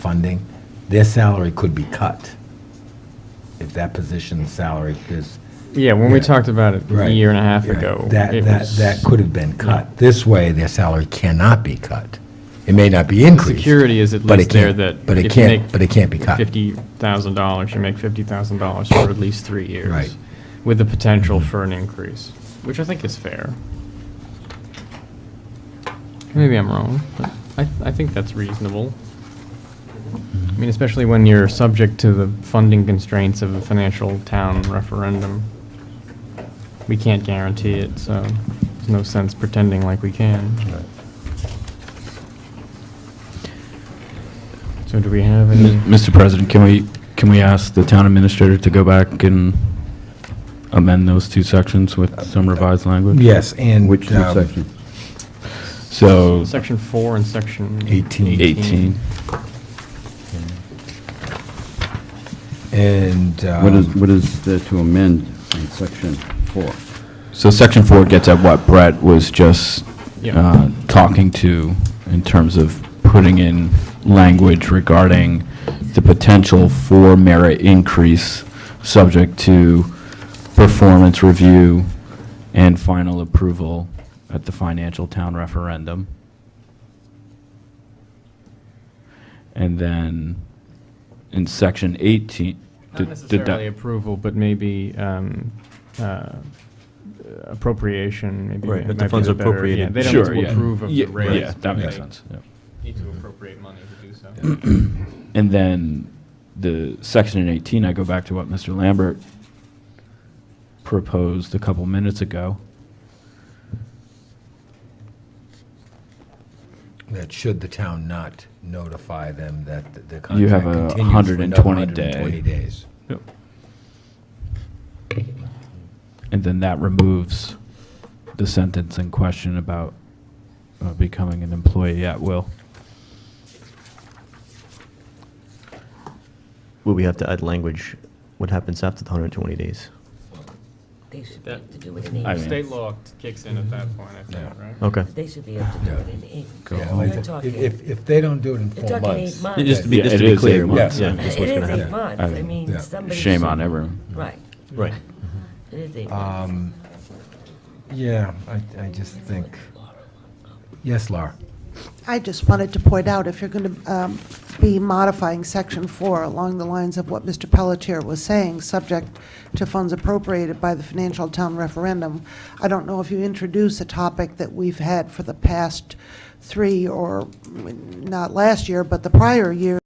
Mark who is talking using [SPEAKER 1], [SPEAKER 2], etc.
[SPEAKER 1] funding, their salary could be cut if that position's salary is.
[SPEAKER 2] Yeah, when we
[SPEAKER 1] Yeah.
[SPEAKER 2] talked about it a
[SPEAKER 1] Right,
[SPEAKER 2] year and a half
[SPEAKER 1] right.
[SPEAKER 2] ago.
[SPEAKER 1] That,
[SPEAKER 2] it
[SPEAKER 1] that,
[SPEAKER 2] was-
[SPEAKER 1] that could have been cut. This way, their salary cannot be cut. It may not be increased.
[SPEAKER 2] Security is at
[SPEAKER 1] but it
[SPEAKER 2] least there
[SPEAKER 1] can't-
[SPEAKER 2] that
[SPEAKER 1] But it
[SPEAKER 2] if you
[SPEAKER 1] can't,
[SPEAKER 2] make
[SPEAKER 1] but it can't be cut.
[SPEAKER 2] Fifty thousand dollars, you make fifty thousand dollars for at least three years.
[SPEAKER 1] Right. Mm-hmm.
[SPEAKER 2] With the potential for an increase, which I think is fair. Maybe I'm wrong, but I, I think that's reasonable. I mean, especially when you're subject to the funding constraints of a financial town referendum. We can't guarantee it, so there's no sense pretending like we can. So do we have any?
[SPEAKER 3] Mr. President, can we, can we ask the town administrator to go back and amend those two sections with some revised language?
[SPEAKER 1] Yes, and.
[SPEAKER 4] Which
[SPEAKER 1] um,
[SPEAKER 4] section?
[SPEAKER 3] So,
[SPEAKER 2] Section four and section.
[SPEAKER 1] Eighteen.
[SPEAKER 3] 18,
[SPEAKER 1] And.
[SPEAKER 4] What
[SPEAKER 1] um,
[SPEAKER 4] is, what is there to amend in section four?
[SPEAKER 3] so section four gets at what Brett was just
[SPEAKER 2] Yeah.
[SPEAKER 3] uh, talking to in terms of putting in language regarding the potential for merit increase, subject to performance review and final approval at the financial town referendum. And then in section 18.
[SPEAKER 2] Not
[SPEAKER 3] did- did that-
[SPEAKER 2] necessarily approval, but maybe um, uh, appropriation, maybe.
[SPEAKER 5] Right, that the
[SPEAKER 2] might be
[SPEAKER 5] funds
[SPEAKER 2] a better- yeah,
[SPEAKER 5] appropriated.
[SPEAKER 2] They don't
[SPEAKER 3] Sure,
[SPEAKER 2] need to
[SPEAKER 3] yeah.
[SPEAKER 2] approve of the
[SPEAKER 3] Yeah,
[SPEAKER 2] raise.
[SPEAKER 3] Yeah, that makes
[SPEAKER 2] They
[SPEAKER 3] sense, yeah.
[SPEAKER 2] Need to appropriate money to do so.
[SPEAKER 3] And then the section in 18, I go back to what Mr. Lambert proposed a couple minutes ago.
[SPEAKER 1] That should the town not notify them that the- the
[SPEAKER 3] You
[SPEAKER 1] contract
[SPEAKER 3] have a
[SPEAKER 1] continues for another
[SPEAKER 3] 120
[SPEAKER 1] 120
[SPEAKER 3] day.
[SPEAKER 1] days.
[SPEAKER 3] And then that removes the sentence in question about uh, becoming an employee at will.
[SPEAKER 5] Would we have to add language, what happens after the 120 days?
[SPEAKER 6] They should be
[SPEAKER 2] That-
[SPEAKER 6] able to do it in
[SPEAKER 3] I
[SPEAKER 6] English.
[SPEAKER 3] mean-
[SPEAKER 2] State law kicks in at that point, I think,
[SPEAKER 1] Yeah.
[SPEAKER 2] right?
[SPEAKER 5] Okay.
[SPEAKER 6] They should be able to do it in English.
[SPEAKER 1] Yeah,
[SPEAKER 6] We're
[SPEAKER 1] like,
[SPEAKER 6] talking-
[SPEAKER 1] if- If, if they don't do it in
[SPEAKER 6] They're
[SPEAKER 1] four
[SPEAKER 6] talking eight
[SPEAKER 1] months.
[SPEAKER 6] months.
[SPEAKER 5] Just to be,
[SPEAKER 3] Yeah,
[SPEAKER 5] just
[SPEAKER 3] it
[SPEAKER 5] to be
[SPEAKER 3] is eight
[SPEAKER 5] clear.
[SPEAKER 3] months,
[SPEAKER 5] yeah,
[SPEAKER 1] yeah.
[SPEAKER 5] that's what's
[SPEAKER 6] It is
[SPEAKER 5] gonna
[SPEAKER 6] eight
[SPEAKER 5] happen.
[SPEAKER 6] months,
[SPEAKER 3] I
[SPEAKER 6] I
[SPEAKER 3] mean,
[SPEAKER 6] mean,
[SPEAKER 1] yeah.
[SPEAKER 6] somebody.
[SPEAKER 3] Shame
[SPEAKER 6] should-
[SPEAKER 3] on everyone.
[SPEAKER 6] Right,
[SPEAKER 5] Right.
[SPEAKER 6] it is eight months.
[SPEAKER 1] Um, Yeah, I, I just think, yes, Laura?
[SPEAKER 7] I just wanted to point out, if you're going to be modifying Section 4 along the lines of what Mr. Pelletier was saying, subject to funds appropriated by the financial town referendum, I don't know if you introduce a topic that we've had for the past three, or mm, not last year, but the prior year,